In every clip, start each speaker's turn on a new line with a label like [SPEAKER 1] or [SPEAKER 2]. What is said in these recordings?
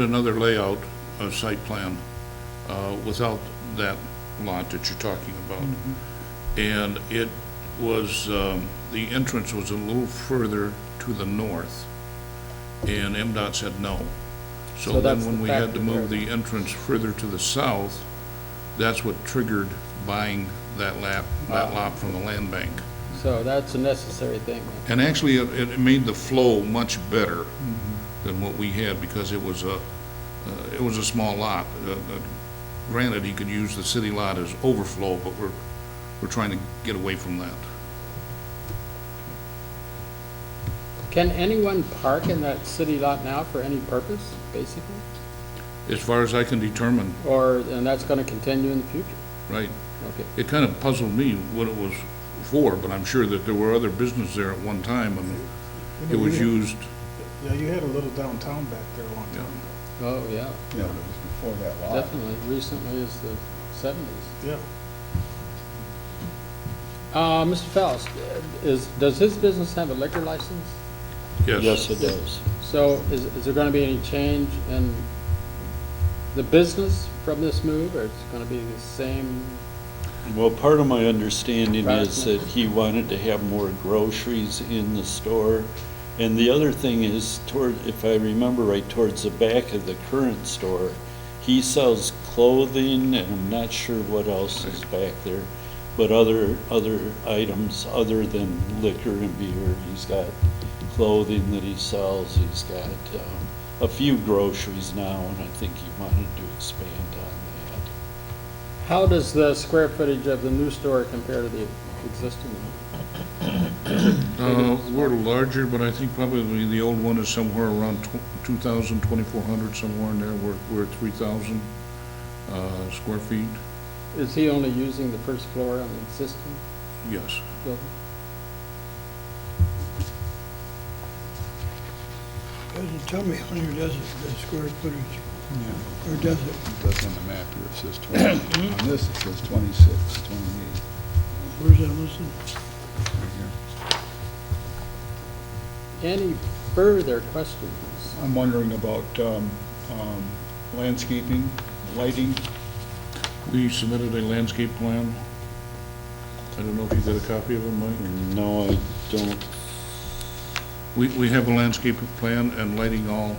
[SPEAKER 1] another layout of site plan uh, without that lot that you're talking about. And it was, um, the entrance was a little further to the north, and MDOT said no. So
[SPEAKER 2] So
[SPEAKER 1] then
[SPEAKER 2] that's
[SPEAKER 1] when
[SPEAKER 2] the
[SPEAKER 1] we had to
[SPEAKER 2] factor
[SPEAKER 1] move
[SPEAKER 2] there.
[SPEAKER 1] the entrance further to the south, that's what triggered buying that lap, that lot from the land bank.
[SPEAKER 2] So that's a necessary thing.
[SPEAKER 1] And actually, it, it made the flow much better than what we had, because it was a, uh, it was a small lot. Uh, uh, Granted, he could use the city lot as overflow, but we're, we're trying to get away from that.
[SPEAKER 2] Can anyone park in that city lot now for any purpose, basically?
[SPEAKER 1] As far as I can determine,
[SPEAKER 2] Or, and that's gonna continue in the future?
[SPEAKER 1] right,
[SPEAKER 2] Okay.
[SPEAKER 1] it kind of puzzled me what it was for, but I'm sure that there were other businesses there at one time, and it was used,
[SPEAKER 3] Yeah, you had a little downtown back there a long time ago.
[SPEAKER 2] Oh, yeah,
[SPEAKER 4] Yeah, but it was before that lot.
[SPEAKER 2] definitely. Recently is the seventies.
[SPEAKER 3] Yeah.
[SPEAKER 2] Uh, Mr. Faust, is, does his business have a liquor license?
[SPEAKER 1] yes.
[SPEAKER 5] Yes, it does.
[SPEAKER 2] So is, is there gonna be any change in the business from this move, or it's gonna be the same?
[SPEAKER 5] Well, part of my understanding is
[SPEAKER 2] Right.
[SPEAKER 5] that he wanted to have more groceries in the store. And the other thing is toward, if I remember right, towards the back of the current store, he sells clothing and I'm not sure what else is back there. But other, other items other than liquor and beer, he's got clothing that he sells, he's got, um, a few groceries now and I think he wanted to expand on that.
[SPEAKER 2] How does the square footage of the new store compare to the existing one?
[SPEAKER 1] Uh, we're larger, but I think probably the old one is somewhere around tw- 2,000, 2,400, somewhere in there. We're, we're at 3,000 uh, square feet,
[SPEAKER 2] Is he only using the first floor on the existing
[SPEAKER 1] yes.
[SPEAKER 2] building?
[SPEAKER 6] Doesn't tell me on here, does it, the square footage,
[SPEAKER 4] Yeah,
[SPEAKER 6] or does it?
[SPEAKER 4] It does on the map here, it says 20.
[SPEAKER 3] Mm-hmm.
[SPEAKER 4] On this, it says 26, 28.
[SPEAKER 6] Where's that listed?
[SPEAKER 4] right here.
[SPEAKER 2] Any further questions?
[SPEAKER 4] I'm wondering about um, um, landscaping, lighting.
[SPEAKER 1] We submitted a landscape plan. I don't know if you got a copy of it, Mike?
[SPEAKER 5] No, I don't
[SPEAKER 1] We, we have a landscape plan and lighting all,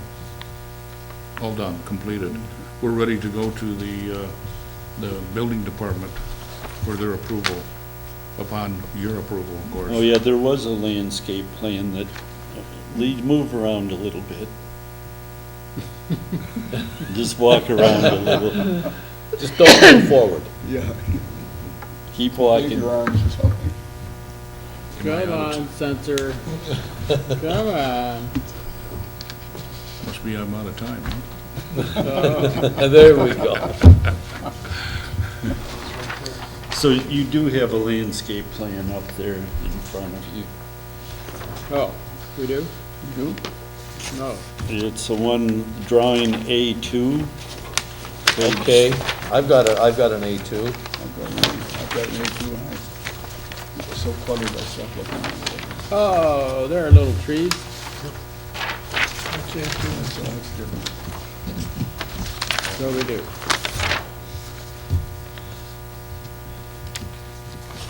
[SPEAKER 1] all done, completed. We're ready to go to the, uh, the building department for their approval, upon your approval, of course.
[SPEAKER 5] Oh, yeah, there was a landscape plan that, uh, lead, move around a little bit. Just walk around a little,
[SPEAKER 2] Just don't move forward.
[SPEAKER 4] Yeah.
[SPEAKER 5] keep
[SPEAKER 4] Wave
[SPEAKER 5] walking.
[SPEAKER 4] your arms or something.
[SPEAKER 2] Come on, censor. Come on.
[SPEAKER 1] Must be I'm out of time, huh?
[SPEAKER 7] There we go.
[SPEAKER 5] So you do have a landscape plan up there in front of you.
[SPEAKER 2] Oh, we do? do? No.
[SPEAKER 5] It's the one drawing A2. page-
[SPEAKER 7] Okay, I've got a, I've got an A2.
[SPEAKER 4] I've got an A- I've got an A2 and I, it's so cluttered, I stopped looking at it.
[SPEAKER 2] Oh, there are little trees.
[SPEAKER 6] That's it.
[SPEAKER 4] So that's different.
[SPEAKER 2] So we do.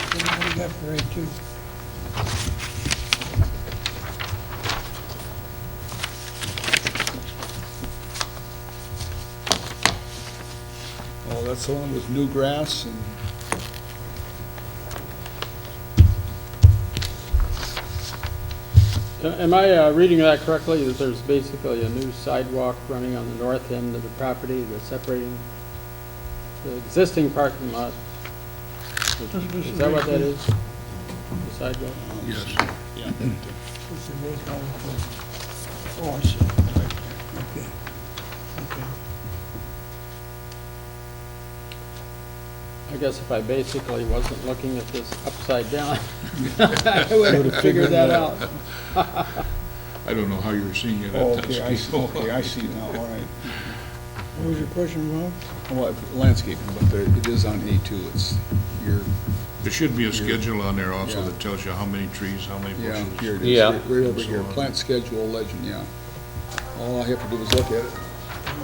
[SPEAKER 6] What do you got for A two?
[SPEAKER 4] Oh, that's the one with new grass and
[SPEAKER 2] Am I uh, reading that correctly, that there's basically a new sidewalk running on the north end of the property that's separating the existing parking lot? Is that what that is? The sidewalk?
[SPEAKER 1] Yes.
[SPEAKER 6] What's the road called for? Oh, I see. Okay. Okay.
[SPEAKER 2] I guess if I basically wasn't looking at this upside down, I would have figured that out.
[SPEAKER 1] I don't know how you're seeing it
[SPEAKER 4] Oh,
[SPEAKER 1] at
[SPEAKER 4] okay,
[SPEAKER 1] that
[SPEAKER 4] I see,
[SPEAKER 1] scale.
[SPEAKER 4] okay, I see now, all right.
[SPEAKER 6] What was your question, Rob?
[SPEAKER 4] Well, landscaping, but there, it is on A2, it's your,
[SPEAKER 1] There should be a schedule on there also
[SPEAKER 4] Yeah.
[SPEAKER 1] that tells you how many trees, how many
[SPEAKER 4] yeah,
[SPEAKER 1] bushes.
[SPEAKER 4] here it is.
[SPEAKER 7] Yeah.
[SPEAKER 4] Right over here, plant schedule legend, yeah. All I have to do is look at it.